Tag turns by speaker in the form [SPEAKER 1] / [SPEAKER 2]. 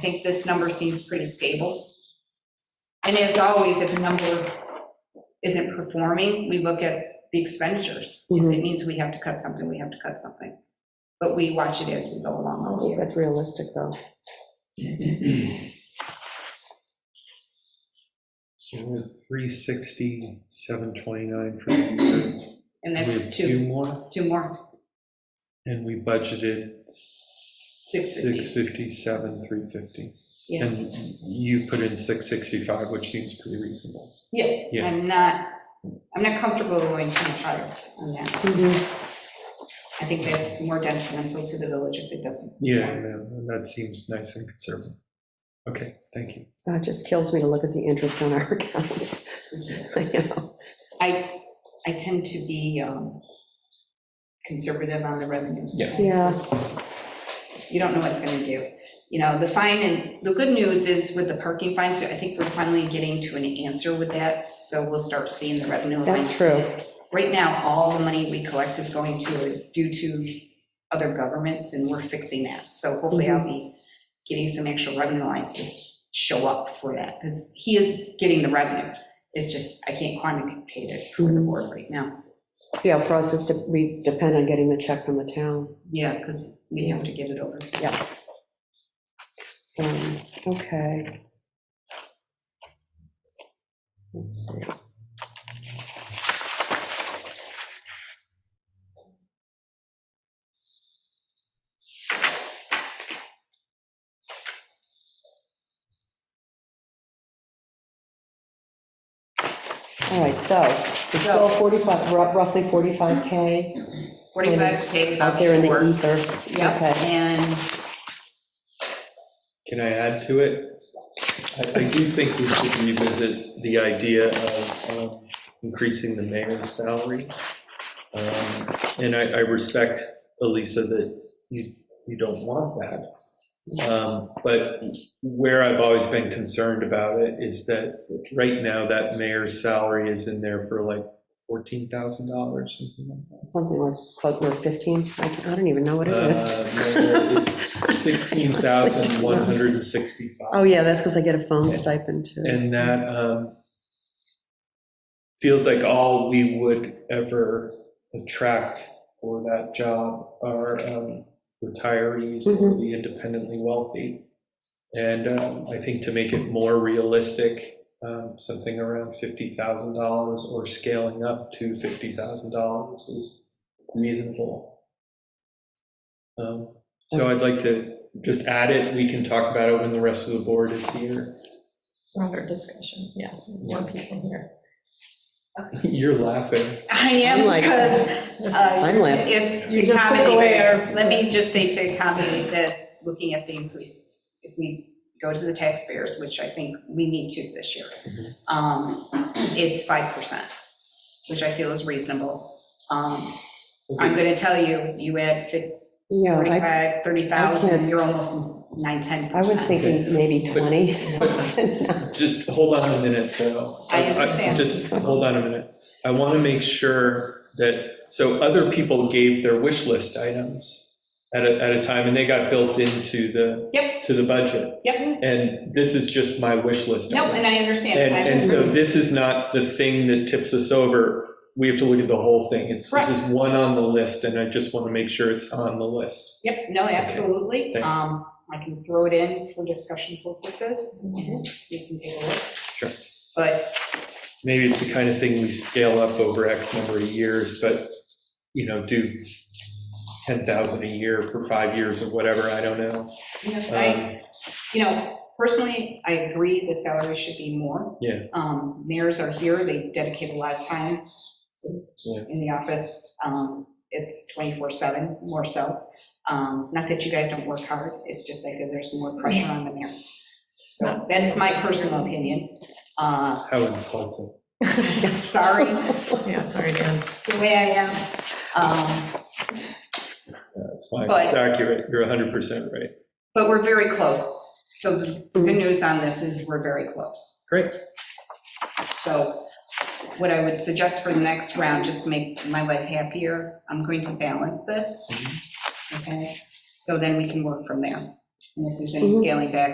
[SPEAKER 1] think this number seems pretty stable. And as always, if a number isn't performing, we look at the expenditures. If it means we have to cut something, we have to cut something. But we watch it as we go along.
[SPEAKER 2] I think that's realistic, though.
[SPEAKER 3] So we're three sixty, seven twenty-nine for the year.
[SPEAKER 1] And
[SPEAKER 3] We
[SPEAKER 1] that's
[SPEAKER 3] have
[SPEAKER 1] two,
[SPEAKER 3] more,
[SPEAKER 1] two more.
[SPEAKER 3] and we budgeted. Six
[SPEAKER 1] 650.
[SPEAKER 3] fifty-seven, three fifty.
[SPEAKER 1] Yeah.
[SPEAKER 3] And you put in six sixty-five, which seems pretty reasonable.
[SPEAKER 1] Yeah,
[SPEAKER 3] Yeah.
[SPEAKER 1] I'm not, I'm not comfortable going too much higher on that.
[SPEAKER 2] Mm-hmm.
[SPEAKER 1] I think that's more detrimental to the village if it doesn't.
[SPEAKER 3] Yeah, and that seems nice and conservative. Okay, thank you.
[SPEAKER 2] Oh, It just kills me to look at the interest on our accounts. You know,
[SPEAKER 1] I, I tend to be um, conservative on the revenues.
[SPEAKER 3] Yeah.
[SPEAKER 2] Yes.
[SPEAKER 1] You don't know what it's going to do. You know, the fine, and the good news is with the parking fines, I think we're finally getting to an answer with that, so we'll start seeing the revenue.
[SPEAKER 2] That's
[SPEAKER 1] lines.
[SPEAKER 2] true.
[SPEAKER 1] Right now, all the money we collect is going to, due to other governments, and we're fixing that. So hopefully I'll be getting some extra revenue lines to show up for that, because he is getting the revenue. It's just, I can't quantitate it for the
[SPEAKER 2] Mhm.
[SPEAKER 1] board right now.
[SPEAKER 2] Yeah, for us, it's de- we depend on getting the check from the town.
[SPEAKER 1] Yeah, because we have to get it over. to-
[SPEAKER 2] Yeah. Um, Okay. Let's see. All right, so it's still 45, rou- roughly 45K
[SPEAKER 1] 45K
[SPEAKER 2] out
[SPEAKER 1] without
[SPEAKER 2] there in the
[SPEAKER 1] the
[SPEAKER 2] ether.
[SPEAKER 1] Yep,
[SPEAKER 2] Okay.
[SPEAKER 1] and
[SPEAKER 3] Can I add to it? I, I do think we should revisit the idea of um, increasing the mayor's salary. Um, And I, I respect, Elisa, that you, you don't want that. Um, But where I've always been concerned about it is that right now, that mayor's salary is in there for like $14,000, something like that.
[SPEAKER 2] something like, close to 15, I don't- I don't even know what it is.
[SPEAKER 3] Uh, It's 16,165.
[SPEAKER 2] Oh, yeah, that's because I get a phone
[SPEAKER 3] Yeah.
[SPEAKER 2] stipend too.
[SPEAKER 3] And that um, feels like all we would ever attract for that job are um, retirees or
[SPEAKER 2] Mhm.
[SPEAKER 3] the independently wealthy. And um, I think to make it more realistic, um, something around $50,000 or scaling up to $50,000 is reasonable. Um, So I'd like to just add it, we can talk about it when the rest of the board is here.
[SPEAKER 4] broader discussion, yeah, more people here.
[SPEAKER 3] You're laughing.
[SPEAKER 1] I
[SPEAKER 2] I'm
[SPEAKER 1] am
[SPEAKER 2] like-
[SPEAKER 1] because. uh,
[SPEAKER 2] I'm like-
[SPEAKER 1] If,
[SPEAKER 4] You
[SPEAKER 1] to
[SPEAKER 4] just took away
[SPEAKER 1] accommodate,
[SPEAKER 4] our-
[SPEAKER 1] let me just say to accommodate this, looking at the increase, if we go to the taxpayers, which I think we need to this year,
[SPEAKER 3] Mhm.
[SPEAKER 2] Mm-hmm.
[SPEAKER 1] um, it's 5%, which I feel is reasonable. Um, I'm going to tell you, you add fif-
[SPEAKER 2] Yeah, I,
[SPEAKER 1] 45,
[SPEAKER 2] I
[SPEAKER 1] 30,000,
[SPEAKER 2] can't-
[SPEAKER 1] you're almost 9, 10%.
[SPEAKER 2] I was thinking maybe
[SPEAKER 3] But-
[SPEAKER 2] 20.
[SPEAKER 3] Just hold on a minute, though.
[SPEAKER 1] I understand.
[SPEAKER 3] Just hold on a minute. I want to make sure that, so other people gave their wish list items at a, at a time, and they got built into the,
[SPEAKER 1] Yep.
[SPEAKER 3] to the budget.
[SPEAKER 1] Yep,
[SPEAKER 3] And this is just my wish list.
[SPEAKER 1] no,
[SPEAKER 3] item.
[SPEAKER 1] and I understand.
[SPEAKER 3] And,
[SPEAKER 1] I
[SPEAKER 3] and so this is not the thing that tips us over. We have to look at the whole thing. It's,
[SPEAKER 1] Correct.
[SPEAKER 3] this is one on the list, and I just want to make sure it's on the list.
[SPEAKER 1] Yep, no, absolutely.
[SPEAKER 3] thanks.
[SPEAKER 1] Um, I can throw it in for discussion purposes, and you can take a look.
[SPEAKER 3] Sure.
[SPEAKER 1] But,
[SPEAKER 3] maybe it's the kind of thing we scale up over X number of years, but, you know, do 10,000 a year for five years or whatever, I don't know.
[SPEAKER 1] you know, I,
[SPEAKER 3] Um,
[SPEAKER 1] you know, personally, I agree the salary should be more.
[SPEAKER 3] Yeah.
[SPEAKER 1] Um, mayors are here, they dedicate a lot of time
[SPEAKER 3] Yeah.
[SPEAKER 1] in the office. Um, it's 24/7, more so. Um, not that you guys don't work hard, it's just like there's more pressure on the mayor. So that's my personal opinion. Uh,
[SPEAKER 3] Um, How insulting.
[SPEAKER 1] sorry.
[SPEAKER 4] Yeah, sorry, Dan.
[SPEAKER 1] It's the way I am. Um,
[SPEAKER 3] That's fine,
[SPEAKER 1] But-
[SPEAKER 3] it's accurate, you're 100% right.
[SPEAKER 1] But we're very close. So the the good news on this is we're very close.
[SPEAKER 3] Great.
[SPEAKER 1] So what I would suggest for the next round, just to make my life happier, I'm going to balance this. Okay? So then we can work from there. And if there's any
[SPEAKER 2] Mhm.
[SPEAKER 1] scaling back,